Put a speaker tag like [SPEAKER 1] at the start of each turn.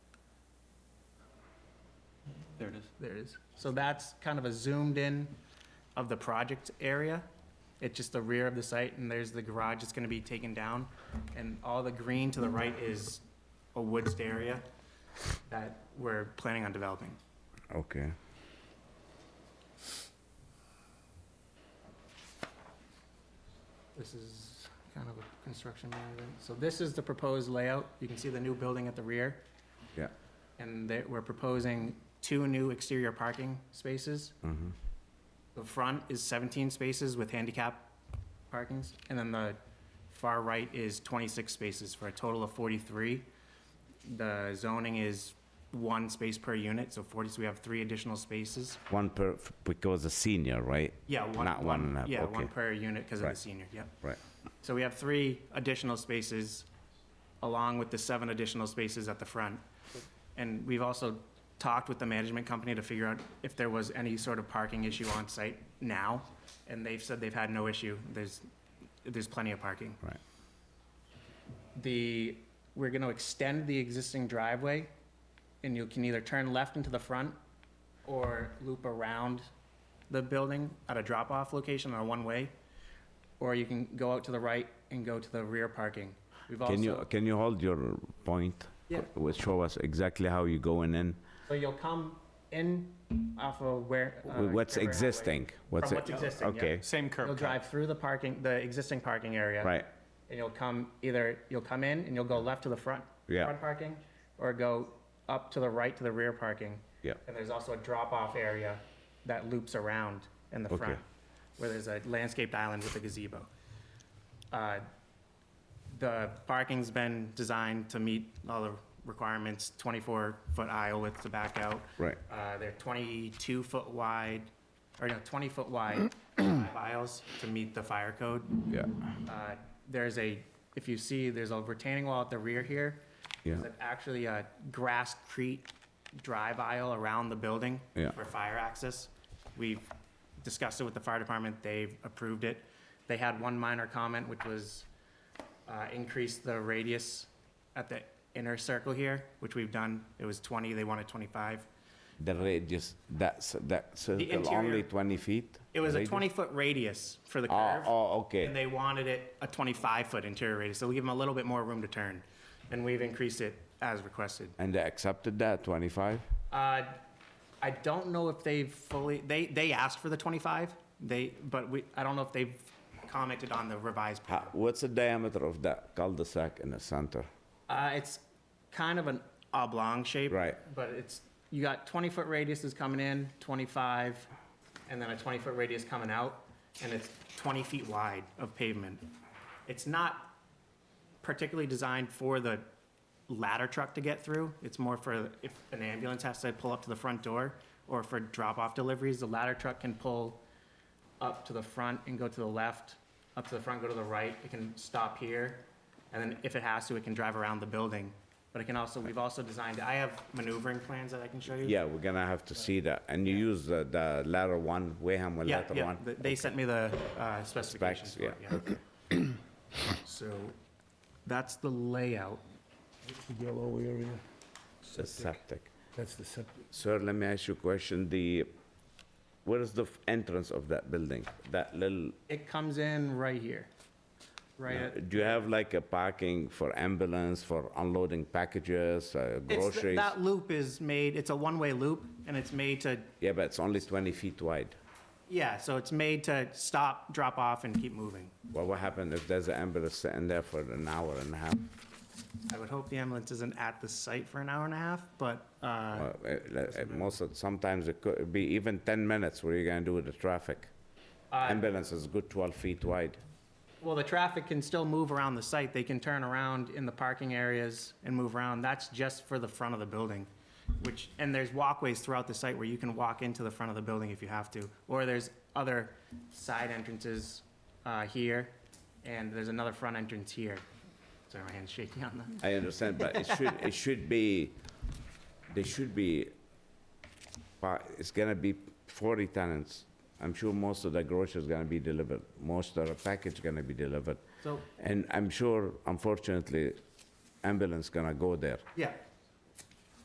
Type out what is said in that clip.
[SPEAKER 1] There it is.
[SPEAKER 2] There it is. So that's kind of a zoomed in of the project area. It's just the rear of the site, and there's the garage that's gonna be taken down. And all the green to the right is a woods area that we're planning on developing.
[SPEAKER 3] Okay.
[SPEAKER 2] This is kind of a construction management. So this is the proposed layout. You can see the new building at the rear.
[SPEAKER 3] Yeah.
[SPEAKER 2] And they, we're proposing two new exterior parking spaces.
[SPEAKER 3] Mhm.
[SPEAKER 2] The front is 17 spaces with handicap parkings, and then the far right is 26 spaces for a total of 43. The zoning is one space per unit, so 40, so we have three additional spaces.
[SPEAKER 3] One per f- because a senior, right?
[SPEAKER 2] Yeah, one.
[SPEAKER 3] Not one and a half,
[SPEAKER 2] Yeah, one
[SPEAKER 3] okay.
[SPEAKER 2] per unit because of the
[SPEAKER 3] Right.
[SPEAKER 2] senior, yep.
[SPEAKER 3] Right.
[SPEAKER 2] So we have three additional spaces, along with the seven additional spaces at the front. And we've also talked with the management company to figure out if there was any sort of parking issue on site now, and they've said they've had no issue. There's, there's plenty of parking.
[SPEAKER 3] Right.
[SPEAKER 2] The, we're gonna extend the existing driveway, and you can either turn left into the front or loop around the building at a drop-off location or one-way, or you can go out to the right and go to the rear parking. We've
[SPEAKER 3] Can you uh,
[SPEAKER 2] also,
[SPEAKER 3] can you hold your point?
[SPEAKER 2] Yeah.
[SPEAKER 3] Co- Will show us exactly how you going in.
[SPEAKER 2] so you'll come in off of where. uh,
[SPEAKER 3] Wh- what's
[SPEAKER 2] River Highway.
[SPEAKER 3] existing? What's
[SPEAKER 2] From
[SPEAKER 3] e-
[SPEAKER 2] what's existing, yeah.
[SPEAKER 3] Okay.
[SPEAKER 1] Same
[SPEAKER 2] You'll
[SPEAKER 1] curb cut.
[SPEAKER 2] drive through the parking, the existing parking area.
[SPEAKER 3] Right.
[SPEAKER 2] And you'll come, either, you'll come in and you'll go left to the front.
[SPEAKER 3] Yeah.
[SPEAKER 2] Front parking, or go up to the right to the rear parking.
[SPEAKER 3] Yeah.
[SPEAKER 2] And there's also a drop-off area that loops around in the
[SPEAKER 3] Okay.
[SPEAKER 2] front, where there's a landscaped island with a gazebo. Uh, The parking's been designed to meet all the requirements, 24-foot aisle width to back out.
[SPEAKER 3] Right.
[SPEAKER 2] Uh, They're 22-foot wide, or no, 20-foot wide five aisles to meet the fire code.
[SPEAKER 3] Yeah.
[SPEAKER 2] Uh, There's a, if you see, there's a retaining wall at the rear here.
[SPEAKER 3] Yeah.
[SPEAKER 2] There's actually a grasscrete drive aisle around the building
[SPEAKER 3] Yeah.
[SPEAKER 2] for fire access. We've discussed it with the fire department, they've approved it. They had one minor comment, which was uh, increase the radius at the inner circle here, which we've done. It was 20, they wanted 25.
[SPEAKER 3] The radius. That's that circle
[SPEAKER 2] interior-
[SPEAKER 3] only 20 feet.
[SPEAKER 2] It was a
[SPEAKER 3] Radius?
[SPEAKER 2] 20-foot radius for the
[SPEAKER 3] Oh,
[SPEAKER 2] curve.
[SPEAKER 3] oh, okay.
[SPEAKER 2] And they wanted it a 25-foot interior radius, so we give them a little bit more room to turn. And we've increased it as requested.
[SPEAKER 3] And they accepted that 25.
[SPEAKER 2] Uh, I don't know if they've fully, they, they asked for the 25, they, but we, I don't know if they've commented on the revised.
[SPEAKER 3] How, what's the diameter of that cul-de-sac in the center?
[SPEAKER 2] Uh, it's kind of an oblong shape.
[SPEAKER 3] Right.
[SPEAKER 2] But it's, you got 20-foot radiuses coming in, 25, and then a 20-foot radius coming out, and it's 20 feet wide of pavement. It's not particularly designed for the ladder truck to get through. It's more for if an ambulance has to pull up to the front door or for drop-off deliveries, the ladder truck can pull up to the front and go to the left, up to the front, go to the right. It can stop here. And then if it has to, it can drive around the building. But it can also, we've also designed, I have maneuvering plans that I can show you.
[SPEAKER 3] Yeah, we're gonna have to see that. And you use the, the latter one, Wareham with
[SPEAKER 2] Yeah,
[SPEAKER 3] latter
[SPEAKER 2] yeah.
[SPEAKER 3] one.
[SPEAKER 2] They- They sent me the uh, specifications
[SPEAKER 3] Specs,
[SPEAKER 2] for it, yeah. So that's the layout.
[SPEAKER 4] The yellow area,
[SPEAKER 3] The septic.
[SPEAKER 4] that's the septic.
[SPEAKER 3] Sir, let me ask you a question. The, where is the f- entrance of that building? That little,
[SPEAKER 2] It comes in right here, right at
[SPEAKER 3] do you have like a parking for ambulance, for unloading packages, uh,
[SPEAKER 2] It's th-
[SPEAKER 3] groceries?
[SPEAKER 2] That loop is made, it's a one-way loop, and it's made to,
[SPEAKER 3] Yeah, but it's only 20 feet wide.
[SPEAKER 2] yeah, so it's made to stop, drop off, and keep moving.
[SPEAKER 3] Well, what happened if there's an ambulance sitting there for an hour and a half? Uh,
[SPEAKER 2] I would hope the ambulance isn't at the site for an hour and a half, but, uh,
[SPEAKER 3] Well, it- it- it- Most, of- sometimes it could be even 10 minutes, what are you gonna do with the traffic? Ambulance is good 12 feet wide.
[SPEAKER 2] well, the traffic can still move around the site. They can turn around in the parking areas and move around. That's just for the front of the building, which, and there's walkways throughout the site where you can walk into the front of the building if you have to. Or there's other side entrances uh, here, and there's another front entrance here. Sorry, my hand's shaking on that.
[SPEAKER 3] I understand, but it should, it should be, there should be, but it's gonna be 40 tenants. I'm sure most of the groceries gonna be delivered, most of the package gonna be delivered.
[SPEAKER 2] So
[SPEAKER 3] And I'm sure, unfortunately, ambulance gonna go there.
[SPEAKER 2] Yeah,